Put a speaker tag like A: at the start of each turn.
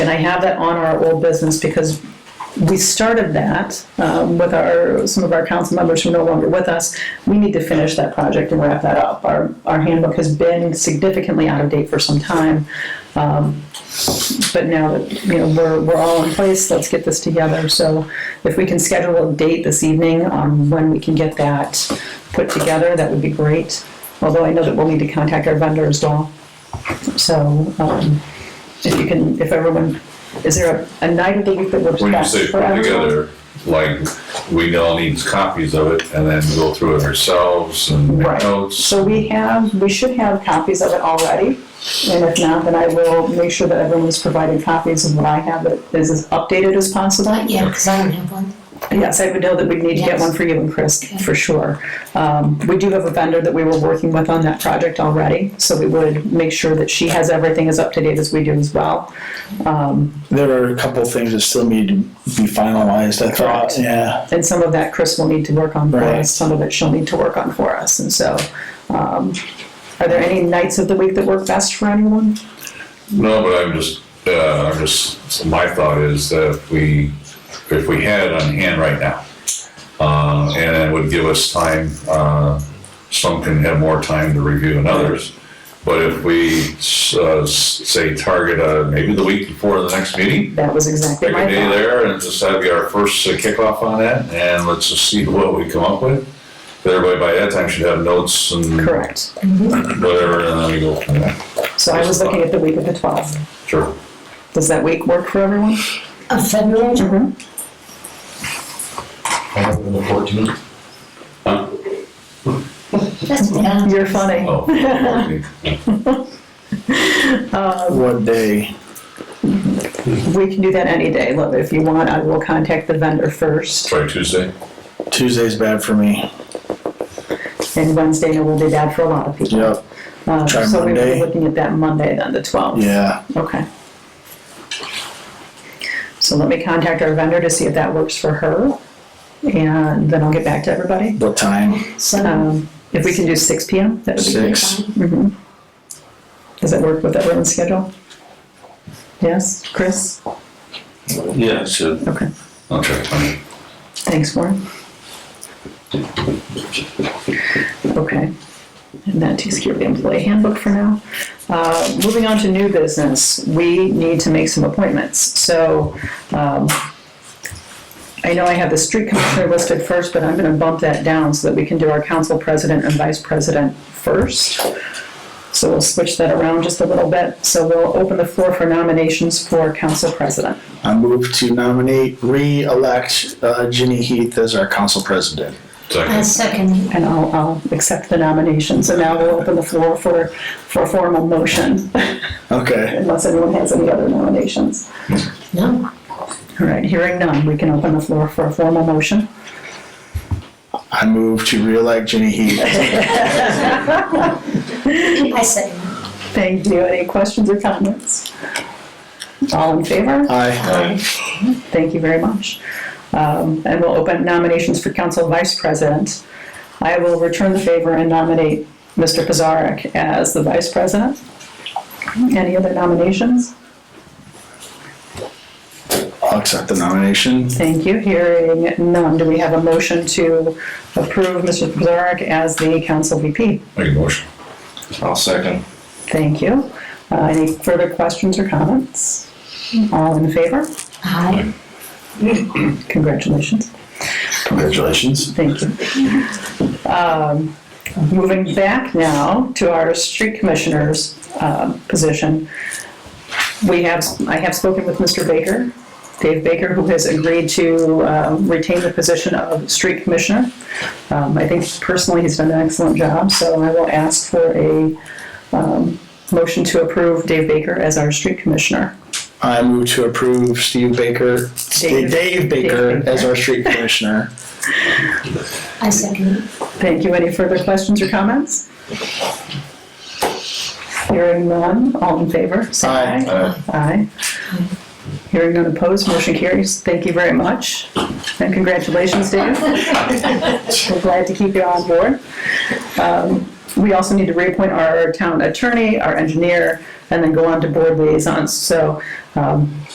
A: I have that on our old business because we started that um, with our, some of our council members who are no longer with us. We need to finish that project and wrap that up. Our, our handbook has been significantly out of date for some time. Um, But now that, you know, we're, we're all in place, let's get this together. So if we can schedule a date this evening, um, when we can get that put together, that would be great. Although I know that we'll need to contact our vendor as well. So, um, if you can, if everyone, is there a, a night of the week that works
B: When you
A: best
B: say
A: for
B: put
A: everyone?
B: together, like, we all need copies of it and then go through it ourselves and make
A: Right.
B: notes.
A: So we have, we should have copies of it already, and if not, then I will make sure that everyone's provided copies of what I have that is as updated as possible.
C: Yeah, because I don't have one.
A: Yes, I would know that we'd need to get
C: Yes.
A: one for you and Chris, for sure. Um, We do have a vendor that we were working with on that project already, so we would make sure that she has everything as up to date as we do as well.
D: There are a couple of things that still need to be finalized, I
A: Correct.
D: thought, yeah.
A: And some of that Chris will need to work on for
D: Right.
A: us, some of it she'll need to work on for us, and so. um, Are there any nights of the week that work best for anyone?
B: No, but I'm just, uh, I'm just, so my thought is that if we, if we had it on hand right now, uh, and it would give us time, uh, some can have more time to review than others. But if we, uh, s- say target, uh, maybe the week before the next meeting,
A: That was exactly
B: pick
A: my
B: a day
A: thought.
B: there and just have our first uh, kickoff on that, and let's just see what we come up with. But Everybody by that time should have notes and
A: Correct.
B: whatever, and then we go from there.
A: So I was looking at the week of the 12th.
B: Sure.
A: Does that week work for everyone?
C: Of Oh, February?
E: I think on the fourteenth.
C: That's Uh, bad.
A: You're funny.
B: Oh, okay.
D: What day?
A: We can do that any day. Look, if you want, I will contact the vendor first,
B: Try Tuesday.
D: Tuesday's bad for me.
A: and Wednesday will be bad for a lot of people.
D: Yep,
A: Uh,
D: Try
A: So we were
D: Monday.
A: looking at that Monday then, the 12th.
D: yeah.
A: Okay. So let me contact our vendor to see if that works for her, and then I'll get back to everybody.
D: What time?
C: Seven.
A: Um, If we can do 6 PM, that would be great.
D: Six.
A: Does that work with everyone's schedule? Yes, Chris?
E: Yeah, so
A: Okay,
B: I'll check.
A: thanks, Warren. Okay. And that takes care of the employee handbook for now. Uh, Moving on to new business, we need to make some appointments. So um, I know I have the street commissioner listed first, but I'm going to bump that down so that we can do our council president and vice president first. So we'll switch that around just a little bit. So we'll open the floor for nominations for council president.
D: I move to nominate, re-elect uh, Ginny Heath as our council president.
C: I
B: Second.
C: second.
A: And I'll, I'll accept the nomination. So now we'll open the floor for, for formal motion,
D: Okay,
A: unless anyone has any other nominations.
C: No,
A: All right, hearing none, we can open the floor for a formal motion.
D: I move to re-elect Ginny Heath.
C: I second.
A: Thank you. Any questions or comments? All in favor?
D: Aye.
A: Thank you very much. Um, And we'll open nominations for council vice president. I will return the favor and nominate Mr. Pizarnik as the vice president. Any other nominations?
D: I'll accept the nomination.
A: Thank you. Hearing none, do we have a motion to approve Mr. Pizarnik as the council VP?
B: Make a motion.
E: I'll second.
A: Thank you. Uh, Any further questions or comments? All in favor?
C: Aye.
A: Congratulations.
D: Congratulations.
A: Thank you. Um, Moving back now to our street commissioner's um, position. We have, I have spoken with Mr. Baker, Dave Baker, who has agreed to um, retain the position of street commissioner. Um, I think personally, he's done an excellent job, so I will ask for a um, motion to approve Dave Baker as our street commissioner.
D: I move to approve Steve Baker,
A: Dave-
D: Dave Baker as our street commissioner.
C: I second.
A: Thank you. Any further questions or comments? Hearing none, all in favor? say
D: Aye.
A: Uh, Aye. Hearing none opposed, motion carries. Thank you very much. And congratulations, Dave. We're glad to keep you on board. Um, We also need to reappoint our town attorney, our engineer, and then go on to board liaisons. So um,